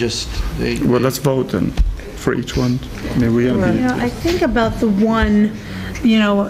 Just, they, Well, let's vote then, for each one. I mean, we're gonna You be, know, I think about the one, you know,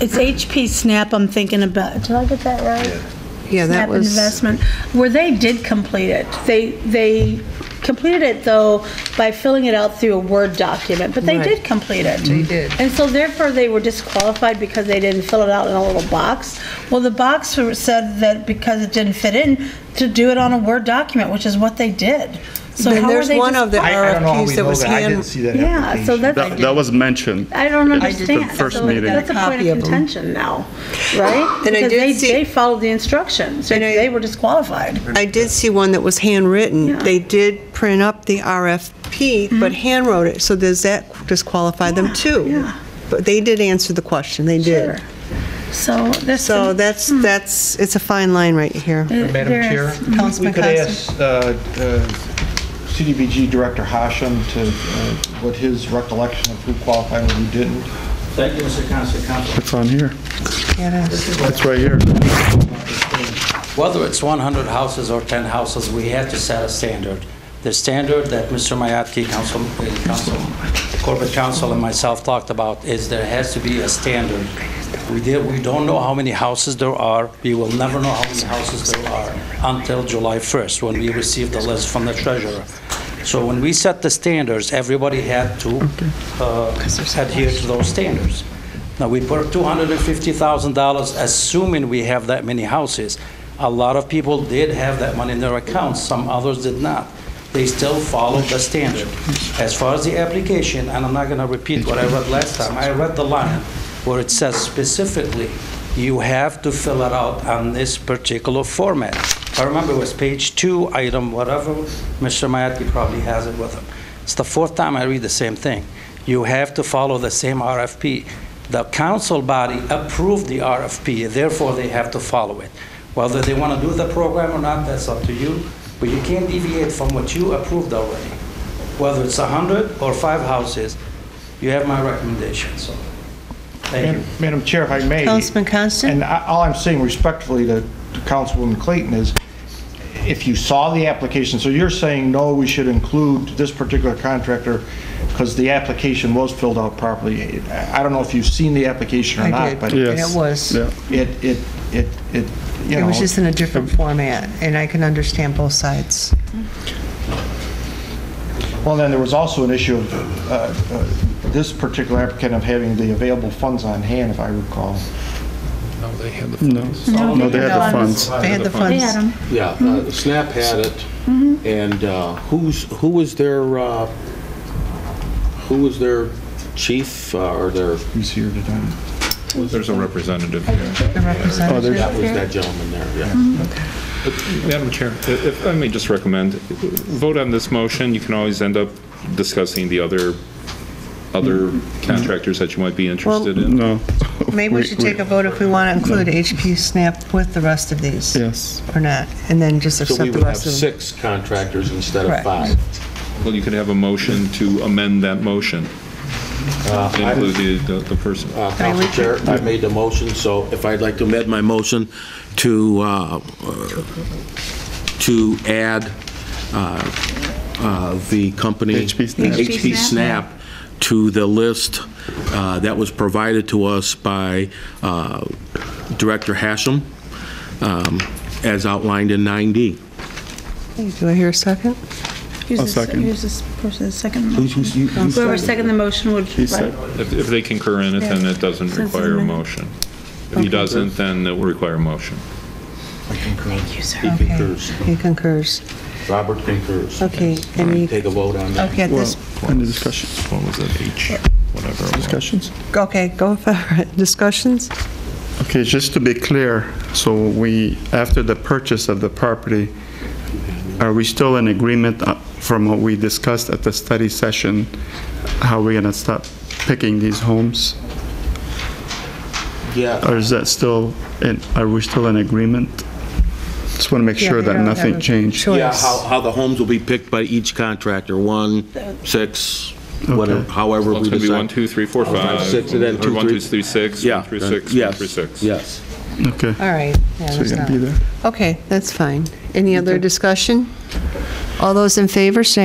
it's HP Snap I'm thinking about. Did I get that right? Yeah, that Snap was, Investment, where they did complete it. They, they completed it though by filling it out through a Word document, but they Right. Mm-hmm. did complete it. They did. And so therefore they were disqualified because they didn't fill it out in a little box. Well, the box said that because it didn't fit in, to do it on a Word document, which is what they did. So then how were there's they one of the I, disqualified? I don't know how RFQs we that know was that, I didn't hand, see that Yeah, so application. that's. that, that was mentioned. I don't the understand. first So meeting. That's a point Copy of of them. contention now, right? And I did Because they- see- They followed the instructions, and they were disqualified. I did see one that was handwritten. Yeah. They did print up the Mm-hmm. RFP, but handwrote it, so does that disqualify them too? yeah. But they did answer the question, they did. So this. So that's, Hmm. that's, it's a fine line right here. Madam Chair, we Mhm. Councilman could Coxon. ask uh, uh, CDBG Director Hashem to, uh, what his recollection of who qualified and who didn't. Thank you, Mr. Constant Council. It's on here. It's right here. Whether it's 100 houses or 10 houses, we have to set a standard. The standard that Mr. Mayatki, Council, uh, Council, Corporate Council, and myself talked about is there has to be a standard. We did, we don't know how many houses there are. We will never know how many houses there are until July 1st, when we receive the list from the treasurer. So when we set the standards, everybody had to uh, adhere to those standards. Now, we put $250,000, assuming we have that many houses. A lot of people did have that money in their accounts, some others did not. They still followed the standard. As far as the application, and I'm not going to repeat what I read last time, I read the line where it says specifically, you have to fill it out on this particular format. I remember it was page two, item whatever, Mr. Mayatki probably has it with him. It's the fourth time I read the same thing. You have to follow the same RFP. The council body approved the RFP, therefore they have to follow it. Whether they want to do the program or not, that's up to you, but you can't deviate from what you approved already. Whether it's 100 or five houses, you have my recommendation, so, thank you. Madam- Madam Chair, if I may. Councilman Constant? And I- all I'm saying respectfully to to Councilwoman Clayton is, if you saw the application, so you're saying, no, we should include this particular contractor because the application was filled out properly. I I don't know if you've seen the application or I not, did, but and Yeah. it, it Yes. was. Yeah. it, it, it, you It know. was just in a different format, and I can understand both sides. Well, then there was also an issue of uh, uh, this particular applicant of having the available funds on hand, if I recall. No, no, they had the funds. They had the They funds. had 'em. Yeah, uh, Snap had it, and uh, who's, who was their, uh, who was their chief uh, or their, Who's here today? There's a representative here. The Oh, representative. that was that gentleman there, yeah. Madam Chair, i- Uh, if I may just recommend, vote on this motion. You can always end up discussing the other, other contractors that you might be interested in. No, Maybe we should take a vote if we want to include HP Snap with the rest of these, yes. or not, and then just So we accept the would have rest of them. six contractors instead of Correct. five. Well, you could have a motion to amend that motion, Uh, I- include the- the, the person. Uh, Council Chair, I made the motion, so if I'd like to amend my motion to, uh, uh, to add uh, uh, the company... HP Snap. HP Snap to the list uh, that was provided to us by uh, Director Hashem, um, as outlined in 9D. Do I hear a second? Who's I'll this- second. Who's this person, second? Whoever second the motion would. He said, If, if they concur in it, then it doesn't require a motion. If he doesn't, then it will require a motion. He concurs. He concurs. Robert concurs. Okay, All right, any- Take a vote on that. Okay, at well, this, any discussion, What was it, H, whatever? it was. discussions? okay, go for it. Discussions? Okay, just to be clear, so we, after the purchase of the property, are we still in agreement uh, from what we discussed at the study session, how we're gonna start picking these homes? Yeah. Or is that still, in- are we still in agreement? Just want to make Yeah, sure they that don't have nothing a changed. choice. Yeah, how, how the homes will be picked by each contractor, one, six, whatever, however Well, we it's going to be one, decide. two, three, four, five, five. six, and then or two, one, three- two, three, six, Yeah. one through six, one Yes, through six. Yes. Okay, All right. yeah, so there's you're gonna not- be there. Okay, that's fine. Any other discussion? All those in favor, say